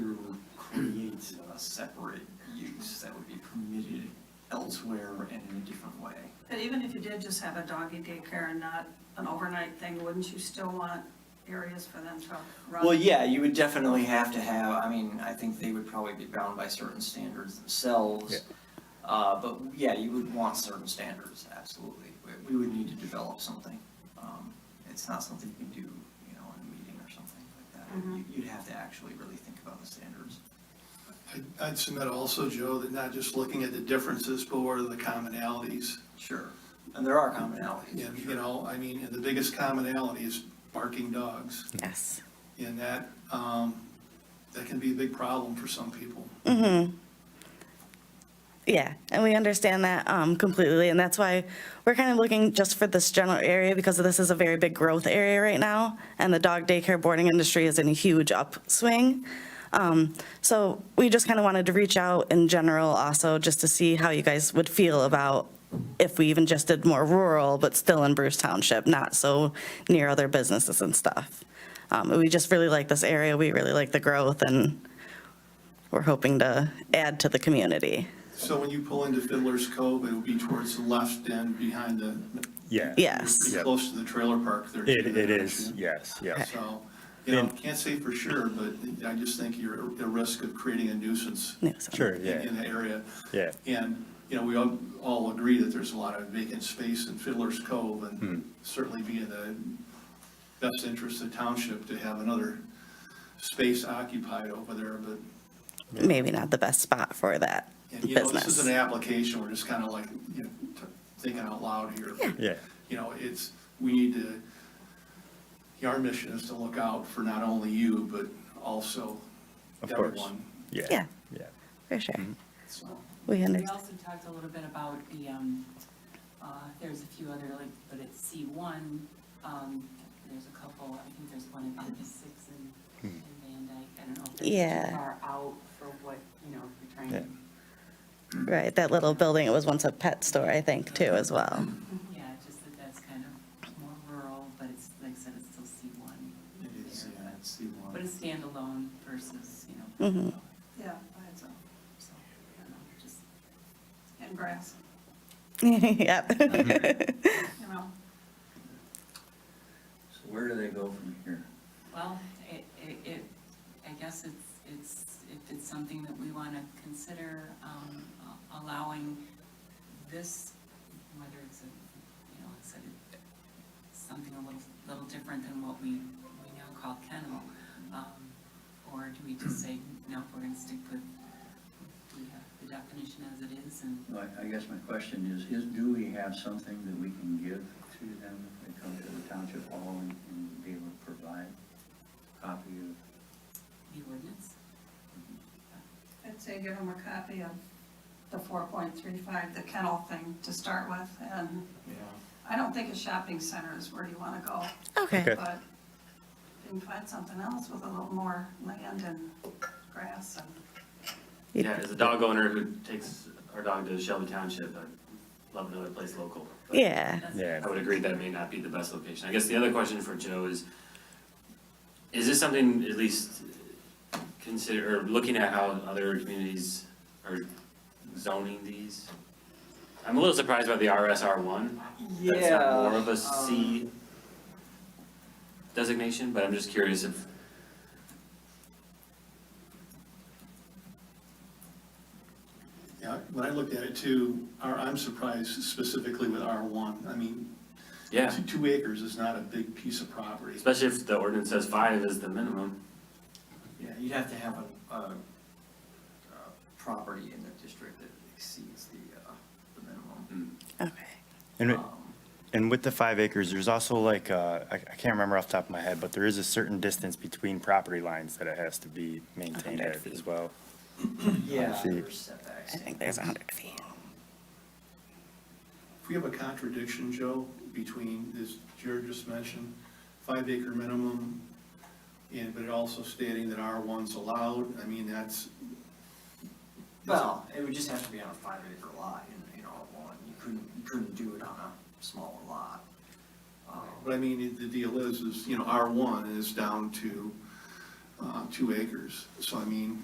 separate use that would be permitted elsewhere and in a different way. But even if you did just have a doggy daycare and not an overnight thing, wouldn't you still want areas for them to run? Well, yeah, you would definitely have to have, I mean, I think they would probably be bound by certain standards Yeah. themselves. Uh, but yeah, you would want certain standards, absolutely. We- We would need to develop something. Um, It's not something you can do, you know, in a meeting or something like that. Mm-hmm. Mhm. You- You'd have to actually really think about the standards. I- I'd submit also, Joe, that not just looking at the differences, but what are the commonalities? Sure. And there are commonalities. And, sure. you know, I mean, the biggest commonality is barking dogs. Yes. And that, um, that can be a big problem for some people. Yeah, and we understand that um, completely, and that's why we're kind of looking just for this general area because this is a very big growth area right now, and the dog daycare boarding industry is in a huge upswing. Um, So we just kind of wanted to reach out in general also, just to see how you guys would feel about if we even just did more rural, but still in Bruce Township, not so near other businesses and stuff. Um, We just really like this area, we really like the growth, and we're hoping to add to the community. So when you pull into Fiddler's Cove, it'll be towards the left end behind the, Yeah. Yes. Yep. close to the trailer park there. It, too, it is, actually. yes, yes. So, you know, And- can't say for sure, but I just think you're at risk of creating a nuisance Yeah, so- Sure, in- yeah, in the area. yeah. And, you know, we all, all agree that there's a lot of vacant space in Fiddler's Cove Hmm. and certainly be in the best interest of township to have another space occupied over there, but, maybe not the best spot for that and you know, this is an business. application, we're just kind of like, you know, t- thinking out loud here. Yeah. You know, it's, we need to, you know, our mission is to look out for not only you, but also Of course. everyone. Yeah, Yeah. yeah. For sure. So, We We understand. also talked a little bit about the, um, uh, there's a few other, like, but it's C one, um, there's a couple, I think there's one in Six and and Van Dyke, I don't know if they're Yeah. too far out for what, you know, if you're Yeah. trying, Right, that little building, it was once a pet store, I think, too, as well. Mm-hmm. yeah, just that that's kind of more rural, but it's, like I said, it's still C one. It is, yeah, it's the one. But it's standalone versus, you know, Mhm. Yeah, by itself, so, I don't know, just, and grass, Yep. you know, So where do they go from here? well, it, it, it, I guess it's, it's, if it's something that we wanna consider, um, a- allowing this, whether it's a, you know, it's a, something a little, little different than what we, we now call kennel, um, or do we just say, no, we're gonna stick with the, the definition as it is and Well, I- I guess my question is, is, do we have something that we can give to them if they come to the township hall and- and be able to provide a copy of? the ordinance? I'd say give them a copy of the four point three five, the kennel thing to start with, and I don't think a shopping center is where you wanna go, Okay, but you can find something else with a little more land and grass and. Yeah, as a dog owner who takes our dog to Shelby Township, I'd love another place local. but yeah. That's- Yeah. I would agree that may not be the best location. I guess the other question for Joe is, is this something at least consider, or looking at how other communities are zoning these? I'm a little surprised by the RSR one. That's Uh, not more of Um, a C designation, but I'm just curious if, Yeah, when I looked at it too, our- I'm surprised specifically with R1. I mean, yeah, Two- Two acres is not a big piece of property. especially if the ordinance says five is the minimum. Yeah, you'd have to have a, a, uh property in the district that exceeds the, uh, the minimum. Okay. Mm. And, Um, and with the five acres, there's also like, uh, I, I can't remember off the top of my head, but there is a certain distance between property lines that it has to be maintained 100 at as feet. well. Yeah, see. there's setbacks. I think there's 100 feet. If we have a contradiction, Joe, between, as Jared just mentioned, five acre minimum, and, but it also stating that R1's allowed, I mean, that's, Well, it would just have to be on a five acre lot in, in R one, you couldn't, you couldn't do it on a smaller lot. Um, but I mean, the deal is, is, you know, R1 is down to, uh, two acres. So I mean,